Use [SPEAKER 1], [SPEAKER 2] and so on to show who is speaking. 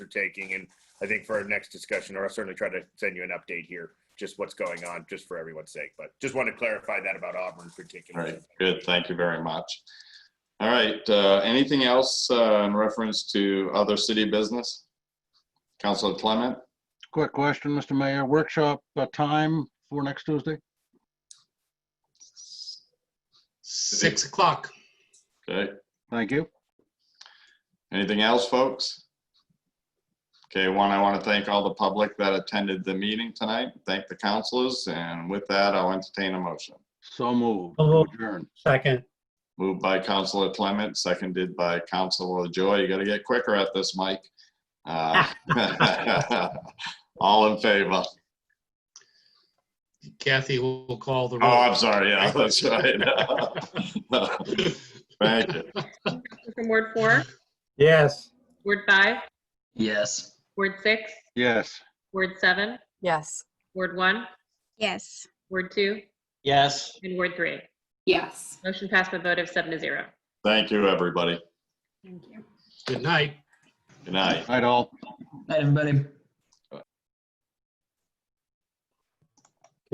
[SPEAKER 1] are taking. And I think for our next discussion, or I'll certainly try to send you an update here, just what's going on, just for everyone's sake. But just want to clarify that about Auburn
[SPEAKER 2] All
[SPEAKER 1] particularly.
[SPEAKER 2] right, good, thank you very much. All right, uh, anything else uh, in reference to other city business? Councilor Clement,
[SPEAKER 3] Quick question, Mr. Mayor. Workshop uh, time for next Tuesday?
[SPEAKER 4] Six o'clock.
[SPEAKER 2] okay,
[SPEAKER 3] Thank you.
[SPEAKER 2] anything else, folks? Okay, one, I want to thank all the public that attended the meeting tonight, thank the councilors, and with that, I'll entertain a motion.
[SPEAKER 3] So moved.
[SPEAKER 5] So moved.
[SPEAKER 3] Adjourned.
[SPEAKER 5] Second.
[SPEAKER 2] Moved by Councilor Clement, seconded by Councilor Joy. You gotta get quicker at this, Mike. Uh, All in favor?
[SPEAKER 4] Kathy will call the
[SPEAKER 2] Oh,
[SPEAKER 4] roll.
[SPEAKER 2] I'm sorry, yeah, that's right. Thank you.
[SPEAKER 6] From Ward four,
[SPEAKER 5] Yes.
[SPEAKER 6] Ward five,
[SPEAKER 7] Yes.
[SPEAKER 6] Ward six,
[SPEAKER 3] Yes.
[SPEAKER 6] Ward seven,
[SPEAKER 8] Yes.
[SPEAKER 6] Ward one,
[SPEAKER 9] Yes.
[SPEAKER 6] Ward two,
[SPEAKER 7] Yes.
[SPEAKER 6] and Ward three.
[SPEAKER 9] Yes.
[SPEAKER 6] Motion passed by a vote of seven to zero.
[SPEAKER 2] Thank you, everybody.
[SPEAKER 9] Thank you.
[SPEAKER 4] Good night.
[SPEAKER 2] Good night.
[SPEAKER 3] Night all.
[SPEAKER 7] Night, everybody.